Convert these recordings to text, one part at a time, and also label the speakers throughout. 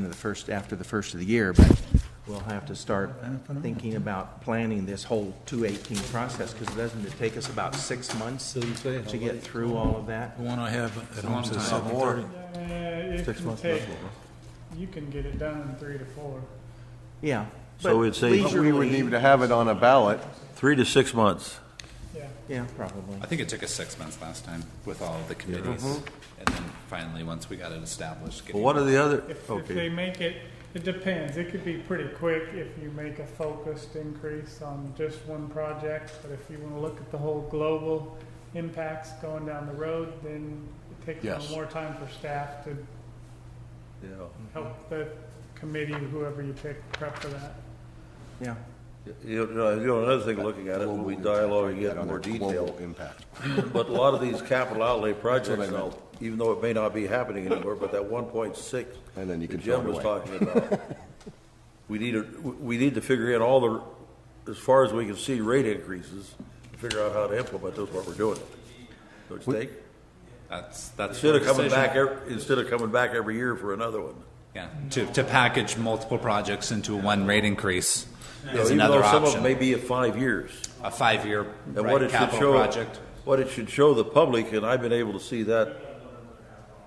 Speaker 1: the first, after the first of the year, but we'll have to start thinking about planning this whole 218 process, because doesn't it take us about six months
Speaker 2: Doesn't say how
Speaker 1: to get
Speaker 2: late.
Speaker 1: through all of that?
Speaker 2: The one I have at home says
Speaker 3: time.
Speaker 2: seven
Speaker 3: Or-
Speaker 2: thirty.
Speaker 4: Uh, it
Speaker 3: Six
Speaker 4: can
Speaker 3: months,
Speaker 4: take-
Speaker 3: that's what, huh?
Speaker 4: You can get it done in three to four.
Speaker 1: Yeah.
Speaker 3: So
Speaker 1: but
Speaker 3: it's a-
Speaker 5: But we would
Speaker 1: leisurely-
Speaker 5: need to have it on a ballot.
Speaker 3: Three to six months.
Speaker 4: Yeah.
Speaker 1: Yeah, probably.
Speaker 6: I think it took us six months last time with all the committees.
Speaker 7: Mm-hmm.
Speaker 6: And then finally, once we got it established.
Speaker 3: Well, What are the other,
Speaker 4: If, if they
Speaker 3: okay,
Speaker 4: make it, it depends. It could be pretty quick if you make a focused increase on just one project. But if you want to look at the whole global impacts going down the road, then it takes a
Speaker 3: Yes.
Speaker 4: little more time for staff to help
Speaker 3: Mm-hmm.
Speaker 4: the committee, whoever you pick, prep for that.
Speaker 1: Yeah.
Speaker 7: You know, you know, another thing, looking at it, when we dialogue and get more detail,
Speaker 5: impact.
Speaker 7: but a lot of these capital outlay projects now, even though it may not be happening anymore, but that one point six
Speaker 5: And then you
Speaker 7: that
Speaker 5: can throw
Speaker 7: Jim
Speaker 5: it
Speaker 7: was
Speaker 5: away.
Speaker 7: talking about, we need to, we need to figure in all the, as far as we can see, rate increases, figure out how to implement this, what we're doing. Don't you think?
Speaker 6: That's, that's.
Speaker 7: Instead of
Speaker 6: the
Speaker 7: coming
Speaker 6: decision.
Speaker 7: back, ev- instead of coming back every year for another one.
Speaker 6: Yeah, to, to package multiple projects into one rate increase
Speaker 7: You know,
Speaker 6: is
Speaker 7: even though
Speaker 6: another
Speaker 7: Some of them may
Speaker 6: option.
Speaker 7: be at five years.
Speaker 6: A five-year
Speaker 7: And what
Speaker 6: right,
Speaker 7: it should
Speaker 6: capital
Speaker 7: show,
Speaker 6: project.
Speaker 7: what it should show the public, and I've been able to see that,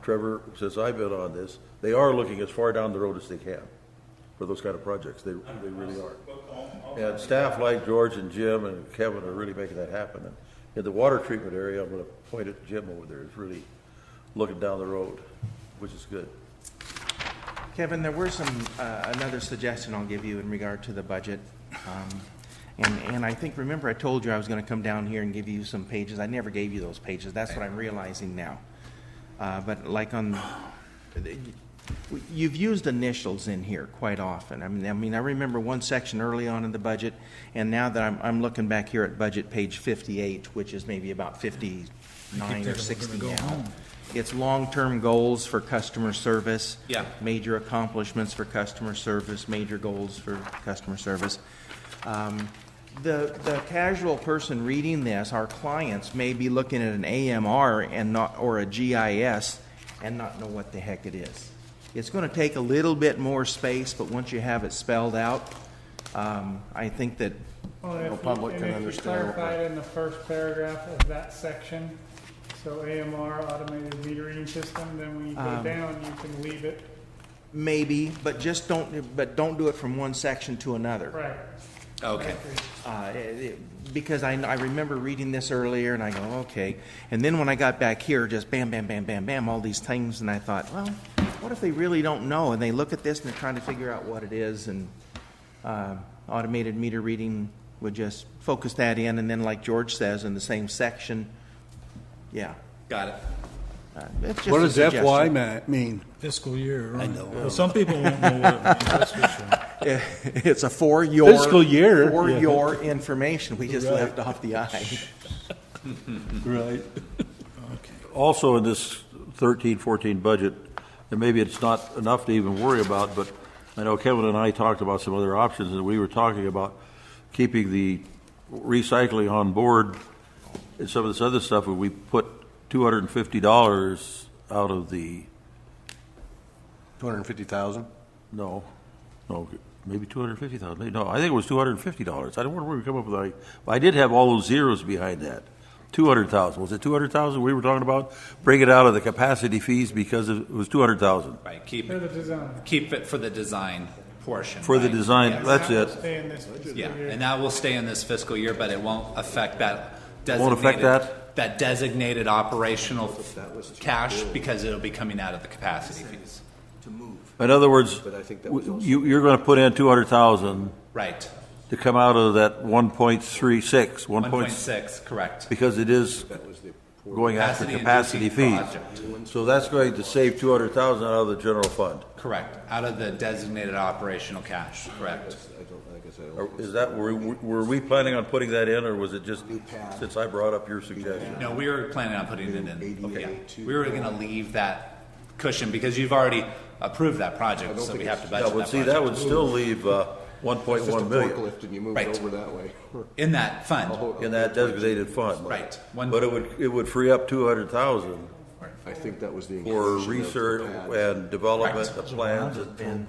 Speaker 7: Trevor, since I've been on this, they are looking as far down the road as they can for those kind of projects. They, they really are. And staff like George and Jim and Kevin are really making that happen. And in the water treatment area, I'm going to point at Jim over there, is really looking down the road, which is good.
Speaker 1: Kevin, there were some, uh, another suggestion I'll give you in regard to the budget. Um, And, and I think, remember I told you I was going to come down here and give you some pages. I never gave you those pages. That's what I'm realizing now. Uh, But like on, you've used initials in here quite often. I mean, I mean, I remember one section early on in the budget, and now that I'm, I'm looking back here at budget page 58, which is maybe about 59 or 60 now. It's long-term goals for customer service.
Speaker 6: Yeah.
Speaker 1: Major accomplishments for customer service, major goals for customer service. Um, The, the casual person reading this, our clients may be looking at an AMR and not, or a GIS and not know what the heck it is. It's gonna take a little bit more space, but once you have it spelled out, um, I think that,
Speaker 4: Well, if you-
Speaker 5: public can
Speaker 4: And if you
Speaker 5: understand what
Speaker 4: clarify it in the first paragraph of that section, so AMR, automated metering system, then when you go down, you can leave it,
Speaker 1: maybe, but just don't, but don't do it from one section to another.
Speaker 4: right.
Speaker 6: Okay,
Speaker 1: Uh, it- it- because I, I remember reading this earlier and I go, okay. And then when I got back here, just bam, bam, bam, bam, bam, all these things. And I thought, well, what if they really don't know? And they look at this and they're trying to figure out what it is. And uh, automated meter reading would just focus that in. And then, like George says, in the same section, yeah.
Speaker 6: got it.
Speaker 1: Uh, it's just
Speaker 3: What
Speaker 1: a
Speaker 3: does FY
Speaker 1: suggestion.
Speaker 3: ma- mean?
Speaker 2: Fiscal year. I know. Well, some people won't know what it means, that's for sure.
Speaker 1: it's a for your
Speaker 3: Fiscal year,
Speaker 1: for
Speaker 3: yeah.
Speaker 1: your information. We just left off the I.
Speaker 3: Right.
Speaker 7: also in this 13, 14 budget, and maybe it's not enough to even worry about, but I know Kevin and I talked about some other options, and we were talking about keeping the recycling on board and some of this other stuff, where we put $250 out of the,
Speaker 5: 250,000?
Speaker 7: no, no, maybe 250,000, maybe- no, I think it was $250. I don't know where we come up with, that. But I did have all those zeros behind that. 200,000, was it 200,000 we were talking about? Bring it out of the capacity fees because it was 200,000.
Speaker 6: Right, keep,
Speaker 4: For the design.
Speaker 6: keep it for the design portion.
Speaker 7: For the
Speaker 6: right?
Speaker 7: design,
Speaker 6: Yes.
Speaker 7: that's it.
Speaker 4: Stay in this fiscal
Speaker 6: Yeah,
Speaker 4: year.
Speaker 6: and that will stay in this fiscal year, but it won't affect that designated.
Speaker 7: Won't affect that?
Speaker 6: that designated operational cash because it'll be coming out of the capacity fees.
Speaker 7: In other words,
Speaker 5: I think that was
Speaker 7: w- you, you're gonna put in two hundred thousand
Speaker 6: Right,
Speaker 7: to come out of that one point three six, one
Speaker 6: one point
Speaker 7: point,
Speaker 6: six, correct.
Speaker 7: because it is going after
Speaker 6: Capacity
Speaker 7: capacity
Speaker 6: inducing
Speaker 7: fees.
Speaker 6: project.
Speaker 7: So that's going to save two hundred thousand out of the general fund.
Speaker 6: Correct, out of the designated operational cash, correct.
Speaker 7: Or Is that, were, we- were we planning on putting that in, or was it just, since I brought up your suggestion?
Speaker 6: No, we were planning on putting it in. Okay. We were gonna leave that cushion because you've already approved that project, so we have to budget
Speaker 7: Yeah,
Speaker 6: that project.
Speaker 7: but see, that would still leave, uh, one point one million
Speaker 5: and you move
Speaker 6: it Right. over
Speaker 5: that way.
Speaker 6: In that fund,
Speaker 7: in that designated fund.
Speaker 6: Right. One-
Speaker 7: But it would, it would free up two hundred thousand
Speaker 5: I think that was the.
Speaker 7: for research and development
Speaker 6: Correct.
Speaker 7: of plans and